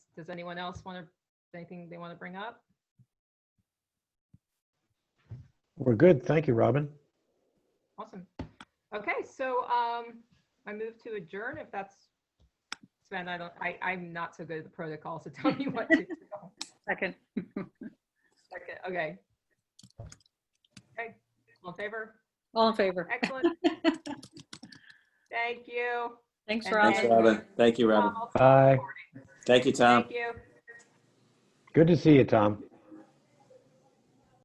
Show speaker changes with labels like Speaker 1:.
Speaker 1: Does anyone else want to, anything they want to bring up?
Speaker 2: We're good. Thank you, Robin.
Speaker 1: Awesome. Okay, so um, I move to adjourn if that's, Sven, I don't, I, I'm not so good at the protocol, so tell me what to do.
Speaker 3: Second.
Speaker 1: Second, Okay. Okay, all in favor?
Speaker 3: All in favor.
Speaker 1: Excellent. Thank you.
Speaker 3: Thanks,
Speaker 1: And
Speaker 3: Rob.
Speaker 1: then-
Speaker 4: Thanks, Robin. Thank you, Robin.
Speaker 1: Tom.
Speaker 2: Bye.
Speaker 4: Thank you, Tom.
Speaker 1: Thank you.
Speaker 2: Good to see you, Tom.